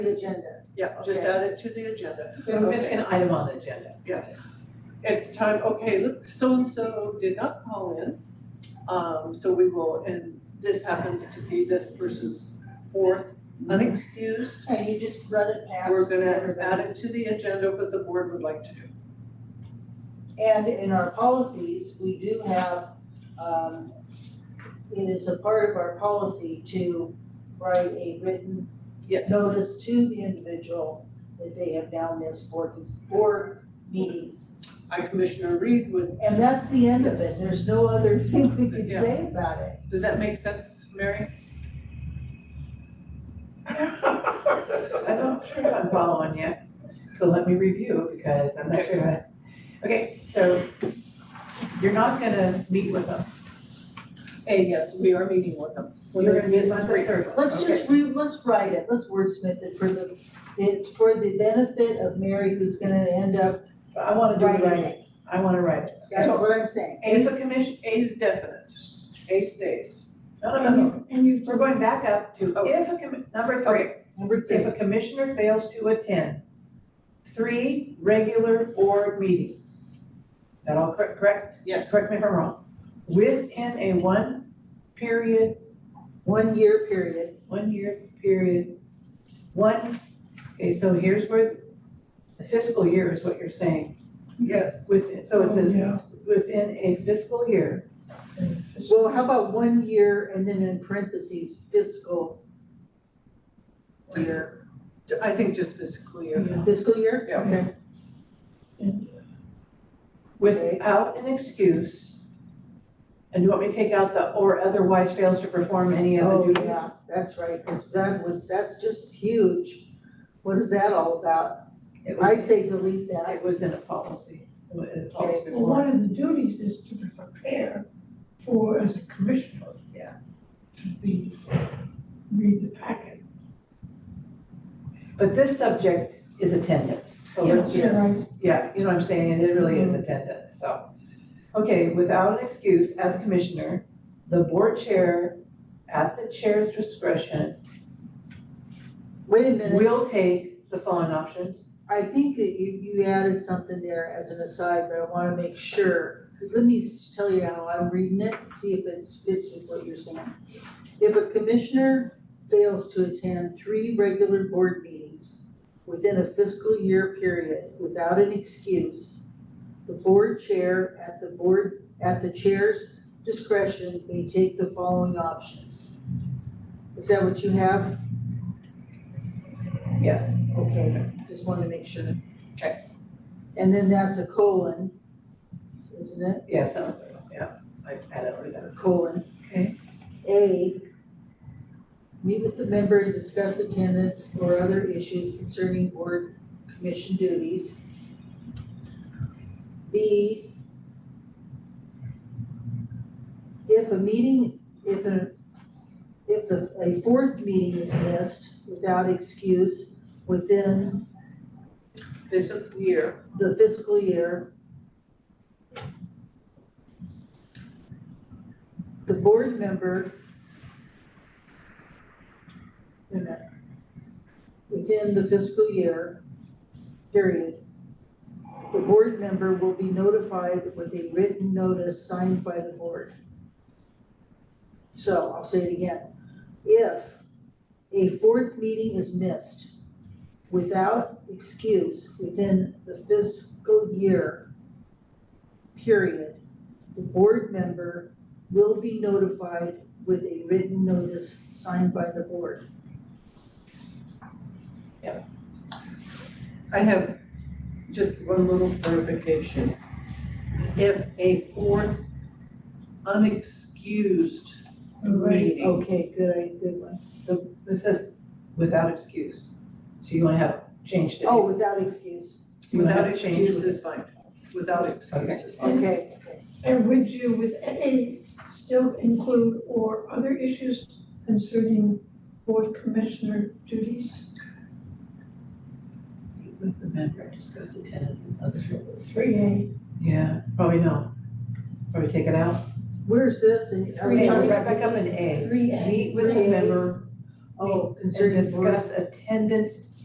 the agenda. Yeah, just Okay. add it to the agenda. So we missed an item on the agenda. It's time, okay, look, so-and-so did not call in. Um, so we will, and this happens to be this person's fourth unexcused. And you just run it past We're gonna everybody. add it to the agenda, what the board would like to do. And in our policies, we do have, um, it is a part of our policy to write a written Yes. notice to the individual that they have now missed four, four meetings. I, Commissioner Reed, would, And that's the end of it, Yes. there's no other thing we can Yeah. say about it. does that make sense, Mary? I'm not sure if I'm following yet, so let me review because I'm not sure. I- Okay, so you're not gonna meet with them. Hey, yes, we are meeting with them. You're gonna meet Miss with them Reed. third. Let's just re, let's write it, let's wordsmith it for the, it's for the benefit of Mary who's gonna end up I wanna do it writing right. it. I wanna write it. That's what I'm saying. It's a A's, commission, A's definite, A stays. no, no, no, no. And you, we're going back up to Oh. if a commi, number three. Okay, Number If three, a commissioner fails to attend three regular board meetings, is that all correct, correct? yes, Correct me if I'm wrong. Within a one period, one year period, one year period, one, okay, so here's where the fiscal year is what you're saying. yes. Within, so it's Oh, yeah. a, within a fiscal year, well, how about one year and then in parentheses fiscal year, I think just fiscal year. fiscal year? Yeah. Okay. without an excuse. And you want me to take out the or otherwise fails to perform any other Oh, duty? yeah, that's right, 'cause that was, that's just huge. What is that all about? It was- I'd say delete that. It was in a policy, it was in a policy Okay. Well, before. one of the duties is to prepare for, as a commissioner. Yeah. To the, read the packet. But this subject is attendance, Oh, so let's Yeah, just, yeah, you know what I'm saying, and it really is attendance, so. Okay, without an excuse, as commissioner, the board chair, at the chair's discretion, Wait a minute, will take the following options. I think that you, you added something there as an aside, but I wanna make sure. Let me s- tell you how I'm reading it, see if it fits with what you're saying. If a commissioner fails to attend three regular board meetings within a fiscal year period without an excuse, the board chair at the board, at the chair's discretion may take the following options. Is that what you have? Yes, Okay, just wanted to make sure. Okay. And then that's a colon, isn't it? yes, I'm- yeah, I added all that. A colon. Okay. A, meet with the member and discuss attendance or other issues concerning board commission duties. B, if a meeting, if a, if the- a fourth meeting is missed without excuse within Fiscal year, the fiscal year. The board member. wait a minute, Within the fiscal year, period. The board member will be notified with a written notice signed by the board. So I'll say it again. If a fourth meeting is missed without excuse within the fiscal year period, the board member will be notified with a written notice signed by the board. I have just one little clarification. If a fourth unexcused meeting, Oh, Okay, good, I, good one. It says without excuse, so you wanna have changed it. Oh, without excuse, You wanna without have changed excuse is fine, without excuse is fine. okay. And would you, with A, still include or other issues concerning board commissioner duties? with- With the member, discuss attendance and other. Three A, Yeah, probably no. Probably take it out. Where's this? And are we Three, talking Back up in A. three A. Meet with Three a A. member Oh, and concerning board. discuss attendance